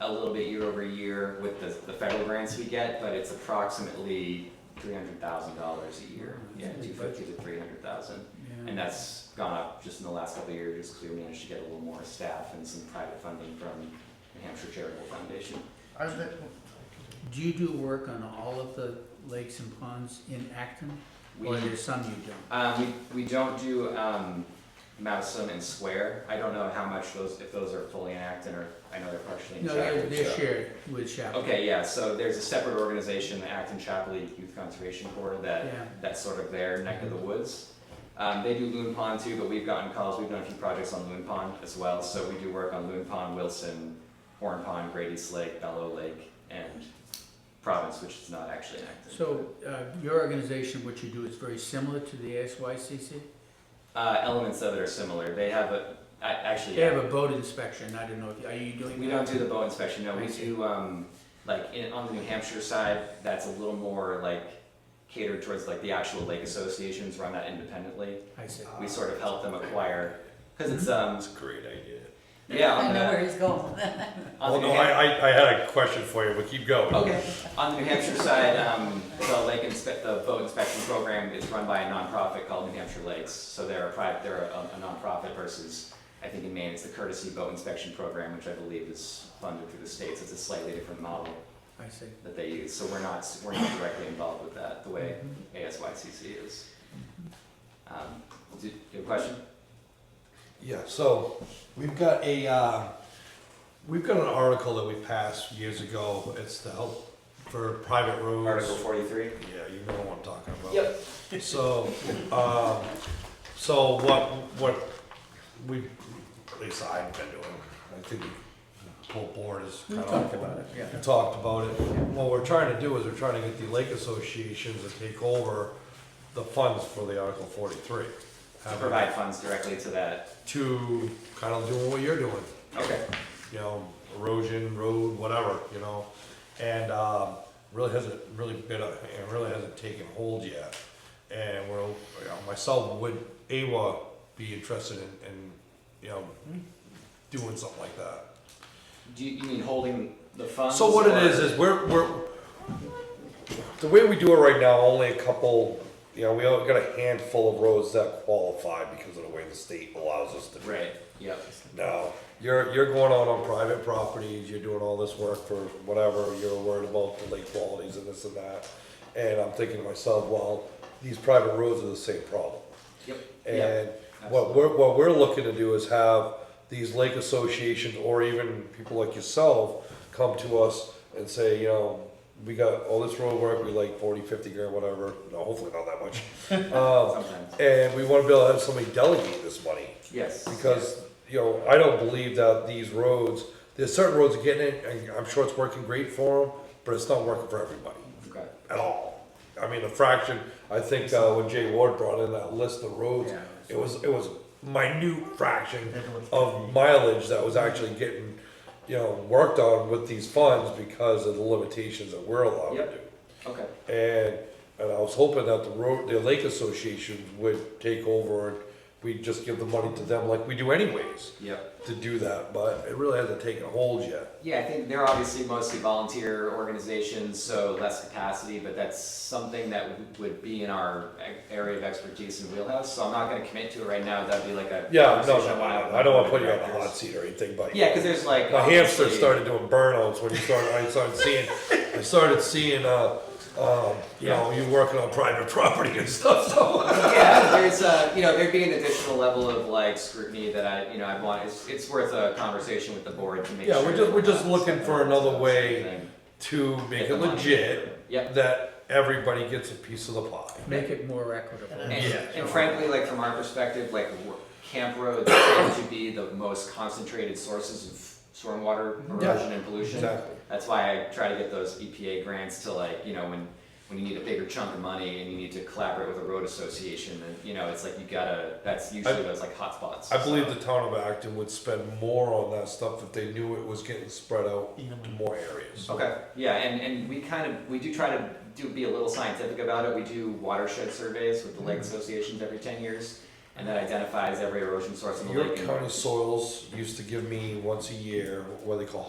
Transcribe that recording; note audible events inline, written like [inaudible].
a little bit year over year with the, the federal grants we get, but it's approximately three hundred thousand dollars a year. Wow, Yeah, Mm-hmm. two that's a Mm-hmm. big fifty to three hundred thousand. Yeah. And that's gone up just in the last couple of years, just because we managed to get a little more staff and some private funding from New Hampshire Charitable Foundation. Are the, Do you do work on all of the lakes and ponds in Acton? We, Or there's some you don't? um, we, we don't do, um, Mousom and Square. I don't know how much those, if those are fully in Acton or, I know they're partially in No, Chapel. they're, they're so- shared with Chaplain. Okay, yeah, so there's a separate organization, the Acton Chapel League Youth Conservation Corps, that Yeah, that's sort of their neck of the woods. Um, they do Loon Pond too, but we've gotten calls. We've done a few projects on Loon Pond as well. So we do work on Loon Pond, Wilson, Horn Pond, Grady's Lake, Bellow Lake, and Province, which is not actually an active. so, uh, your organization, what you do is very similar to the ASYCC? uh, elements of it are similar. They have a I, actually. They have a boat inspection, I don't know, if are you doing? We that? don't do the bow inspection, no, we I see. do, um, like, in, on the New Hampshire side, that's a little more like catered towards like the actual lake associations run that independently. I see. We sort of help them acquire, cause it's, Mm-hmm. um, That's a great idea. yeah, I on know where the, he's going. on Well, the New no, Hampshire. I, I, I had a question for you, but keep going. Okay, on the New Hampshire side, um, the lake inspe- the boat inspection program is run by a nonprofit called New Hampshire Lakes. So they're a private, they're a, a nonprofit versus, I think in Maine, it's the courtesy boat inspection program, which I believe is funded through the states. It's a slightly different model I see. that they use. So we're not, we're not directly involved with that, the way Mm-hmm. ASYCC is. Um, do do you have a question? Yeah, so we've got a, uh, we've got an article that we passed years ago. It's to help for private roads. Article forty-three? Yeah, you know what I'm talking about. Yep. [laughs] So, um, so what, what we, at least I've been doing, I think the whole board is kind of. talked about it, yeah. We talked about it. What we're trying to do is we're trying to get the lake associations to take over the funds for the Article forty-three. To provide funds directly to that, To kind of doing what you're doing okay. you know, erosion, road, whatever, you know. And um, really hasn't really been, a- it really hasn't taken hold yet. And we're, you know, myself, would AWA be interested in, in, you know, Hmm. doing something like that? Do you, you mean holding the funds? So what it or- is, is we're, we're, the way we do it right now, only a couple, you know, we only got a handful of roads that qualify because of the way the state allows us to do it. Right, yep. No, you're, you're going out on private properties, you're doing all this work for whatever, you're worried about the lake qualities and this and that. And I'm thinking to myself, well, these private roads are the same problem. Yep. And absolutely. what we're, what we're looking to do is have these lake associations or even people like yourself come to us and say, you know, we got all this road work, we like forty, fifty grand, whatever, no, hopefully not that much. Um, Sometimes. and we wanna be able to have somebody delegate this money. Yes. Because, you know, I don't believe that these roads, there's certain roads getting it, and I'm sure it's working great for them, but it's not working for everybody Okay. at all. I mean, the fraction, I think, uh, when Jay Ward brought in that list of roads, Yeah. it was, it was a minute fraction of mileage that was actually getting, you know, worked on with these funds because of the limitations that we're allowed to Yep. do. Okay. And, and I was hoping that the road, the lake association would take over and we'd just give the money to them like we do anyways Yep. to do that, but it really hasn't taken hold yet. Yeah, I think they're obviously mostly volunteer organizations, so less capacity, but that's something that w- would be in our e- area of expertise and wheelhouse. So I'm not going to commit to it right now. That'd be like a Yeah, no, conversation no, wanna have no, with I don't wanna board put you on the hot directors. seat or anything, but. Yeah, because there's like My hamster obviously- started doing burnouts when you started, I started seeing, I started seeing, uh, um, you know, you working on private property and stuff, [laughs] so. yeah, there's a, you know, there'd be an additional level of like scrutiny that I, you know, I'd want, it's, it's worth a conversation with the board to make Yeah, sure. we're that just, we're just not looking for stepping on another toes or way anything. to make Get it the money. legit, Yep. that everybody gets a piece of the pie. Make it more equitable. And, Yeah. and frankly, like from our perspective, like w- Camp Road tend to be the most concentrated sources of stormwater Yeah, erosion and pollution. exactly. That's why I try to get those EPA grants to like, you know, when, when you need a bigger chunk of money and you need to collaborate with a road association, and you know, it's like you gotta, that's usually those like hotspots. I believe the town of Acton would spend more on that stuff if they knew it was getting spread out to more areas. Okay, yeah, and, and we kind of, we do try to do, be a little scientific about it, we do watershed surveys with the lake Mm-hmm. associations every ten years, and that identifies every erosion source in the Your lake. and- county soils used to give me once a year what they call